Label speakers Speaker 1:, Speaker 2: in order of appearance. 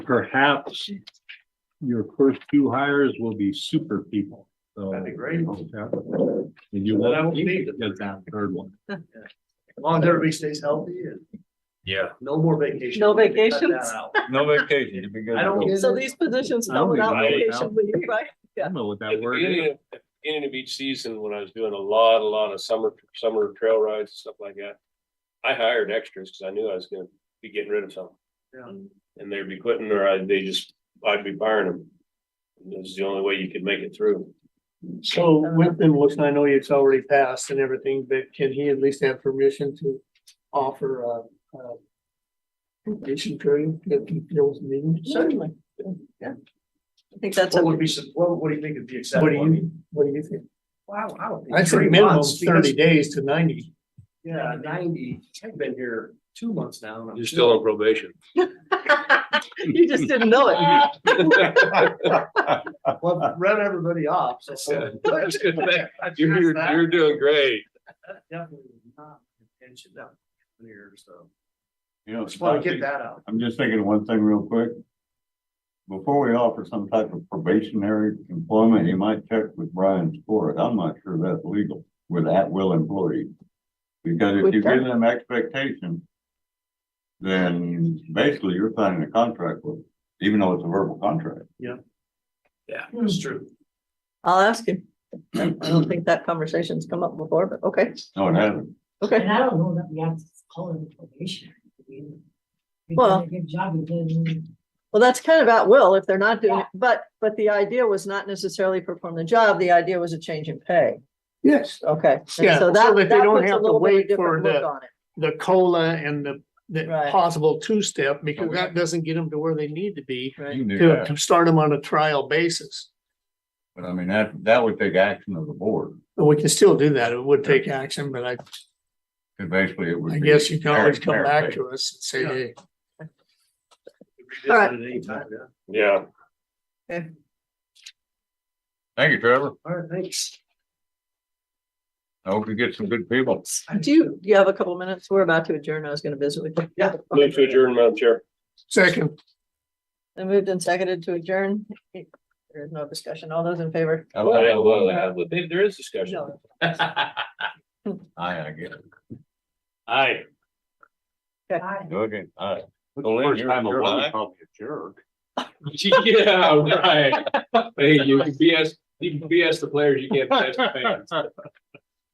Speaker 1: perhaps your first two hires will be super people, so.
Speaker 2: That'd be great.
Speaker 1: Yeah. And you
Speaker 2: Then I
Speaker 1: won't
Speaker 2: won't
Speaker 1: need
Speaker 2: need
Speaker 1: to
Speaker 2: it.
Speaker 1: get that third one.
Speaker 2: As long as everybody stays healthy and
Speaker 3: Yeah,
Speaker 2: no more vacation.
Speaker 4: No
Speaker 2: Cut that
Speaker 4: vacations.
Speaker 2: out.
Speaker 3: no vacation, you'd be good.
Speaker 2: I
Speaker 3: to
Speaker 2: don't
Speaker 3: go.
Speaker 2: get
Speaker 4: So these positions
Speaker 1: I don't
Speaker 4: come without
Speaker 1: think I would
Speaker 4: vacation leave, right?
Speaker 1: I don't know what that
Speaker 5: At the
Speaker 1: word
Speaker 5: beginning
Speaker 1: is.
Speaker 5: of, at the beginning of each season, when I was doing a lot, a lot of summer, summer trail rides, and stuff like that. I hired extras because I knew I was gonna be getting rid of some
Speaker 2: Yeah.
Speaker 5: and they'd be quitting or I'd, they just, I'd be firing them. This is the only way you could make it through.
Speaker 6: So with them, which I know it's already passed and everything, but can he at least have permission to offer a, a vacation period if he feels needed?
Speaker 2: Certainly.
Speaker 4: I think that's
Speaker 2: What
Speaker 4: a,
Speaker 2: would be, some- what, what do you think would be
Speaker 6: What do
Speaker 2: acceptable? I
Speaker 6: you,
Speaker 2: mean,
Speaker 6: what do you think?
Speaker 2: Wow, I don't think
Speaker 6: I'd say
Speaker 2: three
Speaker 6: minimum
Speaker 2: months, because-
Speaker 6: thirty days to ninety.
Speaker 2: Yeah, ninety, I've been here two months now. and I'm
Speaker 5: You're still on probation.
Speaker 4: you just didn't know it.
Speaker 2: Well, run everybody off, so.
Speaker 5: That's good.
Speaker 2: I've
Speaker 5: You're,
Speaker 2: passed
Speaker 5: you're,
Speaker 2: that.
Speaker 5: you're doing great.
Speaker 2: That Definitely was not intention down here, so.
Speaker 7: You know,
Speaker 2: Just wanna get
Speaker 7: Scott,
Speaker 2: that out.
Speaker 7: I'm just thinking of one thing real quick. Before we offer some type of probationary employment, you might check with Brian's court. I'm not sure that's legal with at-will employees. Because if
Speaker 4: We've
Speaker 7: you give
Speaker 4: done-
Speaker 7: them expectation, then basically you're signing a contract with, them, even though it's a verbal contract.
Speaker 2: Yeah, it's true.
Speaker 4: I'll ask him. I don't think that conversation's come up before, but okay,
Speaker 7: No, it hasn't.
Speaker 4: okay.
Speaker 8: And I don't know that we have to call it a probationary. period. You've
Speaker 4: Well-
Speaker 8: done a Good job, you did.
Speaker 4: Well, that's kind of at will if they're not doing, it.
Speaker 8: Yeah.
Speaker 4: but, but the idea was not necessarily perform the job. The idea was a change in pay.
Speaker 6: Yes.
Speaker 4: Okay. and So
Speaker 6: Yeah, so
Speaker 4: that,
Speaker 6: that they
Speaker 4: that
Speaker 6: don't
Speaker 4: puts a
Speaker 6: have to
Speaker 4: little bit
Speaker 6: wait
Speaker 4: of
Speaker 6: for
Speaker 4: different look
Speaker 6: the-
Speaker 4: on it.
Speaker 6: The COLA and the, the
Speaker 4: Right.
Speaker 6: possible two-step, because
Speaker 7: Okay.
Speaker 6: that doesn't get them to where they need to be
Speaker 7: You can do
Speaker 6: to,
Speaker 7: that.
Speaker 6: to start them on a trial basis.
Speaker 7: But I mean, that, that would take action of the board.
Speaker 6: But we can still do that. It would take action, but I,
Speaker 7: And basically it would.
Speaker 6: I
Speaker 7: be
Speaker 6: guess you can always
Speaker 7: merit-
Speaker 6: come
Speaker 7: merit
Speaker 6: back
Speaker 7: based.
Speaker 6: to us and say,
Speaker 2: Yeah.
Speaker 6: hey,
Speaker 4: All right.
Speaker 2: Revisit it anytime, yeah.
Speaker 5: Yeah.
Speaker 7: Thank you, Trevor.
Speaker 2: All right, thanks.
Speaker 7: I hope you get some good people.
Speaker 4: Do you, do you have a couple minutes? We're about to adjourn. I was gonna visit with you.
Speaker 2: Yeah.
Speaker 5: Move to adjourn, Madam Chair.
Speaker 6: second,
Speaker 4: I moved and seconded to adjourn. There is no discussion. All those in favor?
Speaker 7: I
Speaker 5: Well,
Speaker 7: like
Speaker 5: yeah,
Speaker 7: the
Speaker 5: well,
Speaker 7: one-
Speaker 5: yeah, well, there- there is discussion.
Speaker 4: No.
Speaker 7: Aye, I guess.
Speaker 5: Aye.
Speaker 8: Bye.
Speaker 7: Okay, aye.
Speaker 5: Well, First you're- time you're alive. aye.
Speaker 7: Probably a jerk.
Speaker 5: Yeah, right. Hey, you can BS, you can BS the players, you can't BS the fans.